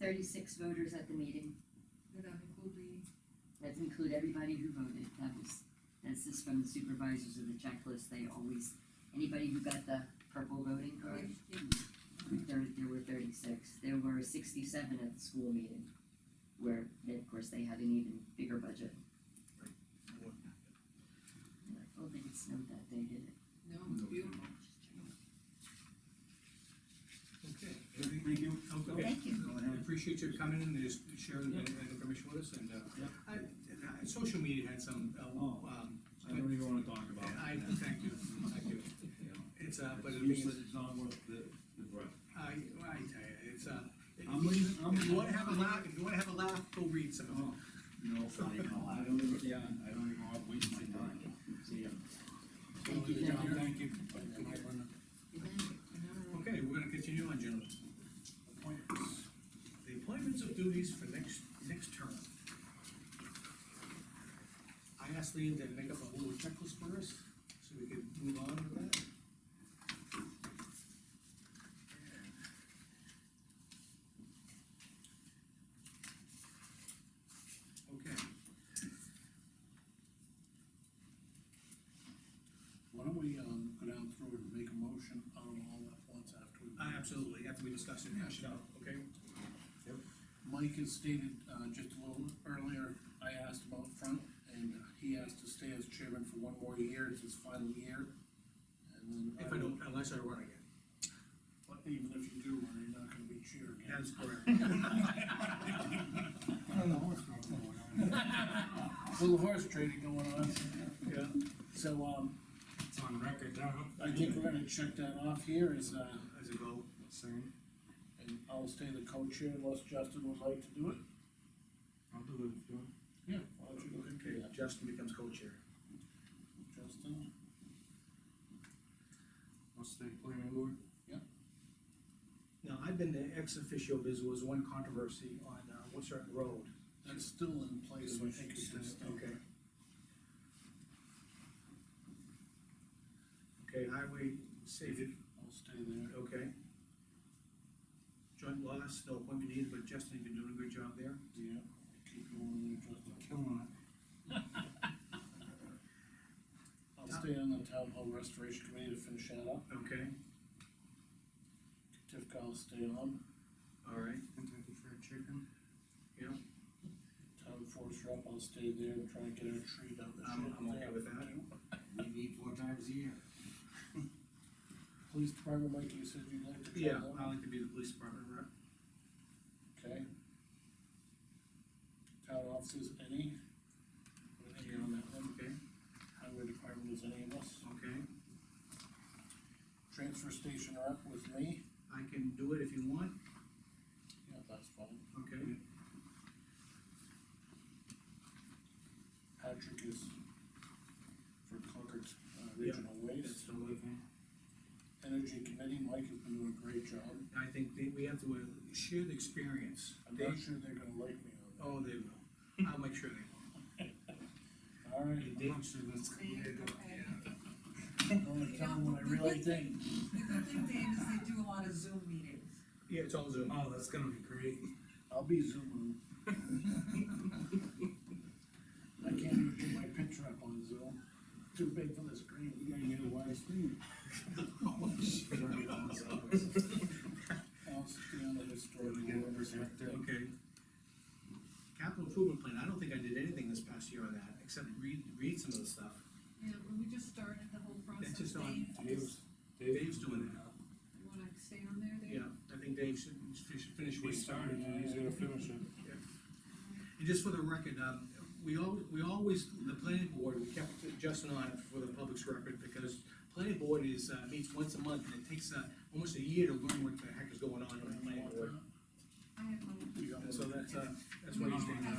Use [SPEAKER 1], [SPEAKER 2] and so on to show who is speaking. [SPEAKER 1] thirty-six voters at the meeting,
[SPEAKER 2] Did that include the,
[SPEAKER 1] that include everybody who voted, that was, that's just from the supervisors of the checklist, they always, anybody who got the purple voting card,
[SPEAKER 2] yeah,
[SPEAKER 1] there, there were thirty-six, there were sixty-seven at the school meeting, where, then, of course, they had an even bigger budget. And I don't think it snowed that day, did it?
[SPEAKER 2] no, it's beautiful.
[SPEAKER 3] Okay,
[SPEAKER 4] Thank you.
[SPEAKER 3] Okay.
[SPEAKER 1] Thank you.
[SPEAKER 4] Go
[SPEAKER 3] I
[SPEAKER 4] ahead.
[SPEAKER 3] appreciate your coming in and just sharing that that information with us, and, uh,
[SPEAKER 4] Yeah.
[SPEAKER 3] I, I- social media had some, uh,
[SPEAKER 4] Oh.
[SPEAKER 3] um,
[SPEAKER 4] I don't even wanna talk about it.
[SPEAKER 3] I, thank you, thank you. It's, uh, but
[SPEAKER 4] It's
[SPEAKER 3] the thing
[SPEAKER 4] useless,
[SPEAKER 3] is,
[SPEAKER 4] it's not worth the, the breath.
[SPEAKER 3] I, I tell you, it's, uh,
[SPEAKER 4] I'm leaving, I'm.
[SPEAKER 3] if you wanna have a laugh, if you wanna have a laugh, go read some of it.
[SPEAKER 4] Oh, No, I know, I don't even, yeah, I don't even want to waste my time. See ya.
[SPEAKER 1] Thank you,
[SPEAKER 3] Good job,
[SPEAKER 1] gentlemen.
[SPEAKER 3] Thank you.
[SPEAKER 1] Good night.
[SPEAKER 3] Okay, we're gonna continue on, gentlemen. Appointments. The appointments of duties for next, next term. I asked Lean to make up a little checklist for us, so we could move on with that. Okay,
[SPEAKER 5] Why don't we, um, go down through and make a motion on all at once after we.
[SPEAKER 3] I absolutely, after we discuss it, hash it out, okay?
[SPEAKER 5] Mike has stated, uh, just a little earlier, I asked about front, and he asked to stay as chairman for one more year, it's his final year. And then.
[SPEAKER 3] If I don't, unless I run again.
[SPEAKER 5] But even if you do, run, you're not gonna be chair again.
[SPEAKER 3] That's correct.
[SPEAKER 5] I don't know what's going on. Little horse trading going on,
[SPEAKER 3] Yeah.
[SPEAKER 5] so, um,
[SPEAKER 6] It's on record now.
[SPEAKER 5] I think we're gonna check that off here as, uh,
[SPEAKER 3] As a goal.
[SPEAKER 6] Soon.
[SPEAKER 5] and I'll stay the co-chair unless Justin would like to do it.
[SPEAKER 6] I'll do it if you want.
[SPEAKER 5] Yeah. Why don't you look into
[SPEAKER 3] Okay,
[SPEAKER 5] that,
[SPEAKER 3] Justin becomes co-chair.
[SPEAKER 5] Justin?
[SPEAKER 6] I'll stay planning board.
[SPEAKER 3] Now, I've been the ex officio, there was one controversy on uh, Woodstock Road.
[SPEAKER 5] That's still in place, so I think it's just.
[SPEAKER 3] Okay. Okay, highway safety,
[SPEAKER 5] I'll stay there.
[SPEAKER 3] okay. Joint loss, no appointment needed, but Justin, you've been doing a good job there.
[SPEAKER 5] Yeah, keep going there, Justin.
[SPEAKER 6] Killing
[SPEAKER 5] I'll stay on the town hall restoration committee to finish that up.
[SPEAKER 3] Okay,
[SPEAKER 5] Tifka, I'll stay on.
[SPEAKER 3] all right,
[SPEAKER 6] it. Kentucky Fried Chicken.
[SPEAKER 3] yeah,
[SPEAKER 5] Town forest rep, I'll stay there and try and get a tree down the
[SPEAKER 3] I'm,
[SPEAKER 5] shore.
[SPEAKER 3] I'm okay with that.
[SPEAKER 4] We meet four times a year.
[SPEAKER 5] Police department, Mike, you said you'd like to. try
[SPEAKER 3] Yeah,
[SPEAKER 5] that?
[SPEAKER 3] I like to be the police department rep.
[SPEAKER 5] Okay. Town offices, any? What do you think on that one?
[SPEAKER 3] Okay,
[SPEAKER 5] Highway department is any of us.
[SPEAKER 3] okay,
[SPEAKER 5] Transfer station rep with me.
[SPEAKER 3] I can do it if you want,
[SPEAKER 5] Yeah, that's fine.
[SPEAKER 3] okay?
[SPEAKER 5] Patrick is for Concord uh,
[SPEAKER 3] Yeah.
[SPEAKER 5] Regional Waste.
[SPEAKER 3] That's totally fine.
[SPEAKER 5] Energy Committee, Mike has been doing a great job.
[SPEAKER 3] I think that we have to uh, share the experience.
[SPEAKER 5] I'm not sure they're gonna like me on
[SPEAKER 3] Oh, they will. I'll make sure they will.
[SPEAKER 5] that. All right,
[SPEAKER 6] I'm not sure that's gonna be a good.
[SPEAKER 2] Okay.
[SPEAKER 5] I'm gonna tell them what I really think.
[SPEAKER 2] The good thing, Dave, is they do a lot of Zoom meetings.
[SPEAKER 3] Yeah, it's all Zoom.
[SPEAKER 6] Oh, that's gonna be great.
[SPEAKER 5] I'll be zooming. I can't even get my picture up on Zoom. Too big for the screen.
[SPEAKER 4] You gotta get a wide screen.
[SPEAKER 5] I'll stay on the historic
[SPEAKER 3] Gotta get it
[SPEAKER 5] board.
[SPEAKER 4] protected.
[SPEAKER 3] Okay. Capital improvement plan, I don't think I did anything this past year on that, except read, read some of the stuff.
[SPEAKER 2] Yeah, when we just started the whole process,
[SPEAKER 3] just on
[SPEAKER 2] Dave,
[SPEAKER 6] Dave's,
[SPEAKER 3] Dave's doing it now.
[SPEAKER 2] you wanna stay on there, Dave?
[SPEAKER 3] Yeah, I think Dave should, should finish
[SPEAKER 6] we
[SPEAKER 3] what he started.
[SPEAKER 6] started and he's gonna finish it.
[SPEAKER 3] And just for the record, um, we al- we always, the planning board, we kept Justin on for the public's record, because planning board is, uh, meets once a month, and it takes, uh, almost a year to learn what the heck is going on in the planning board.
[SPEAKER 2] I have one.
[SPEAKER 3] And so that's, uh, that's why he's doing that.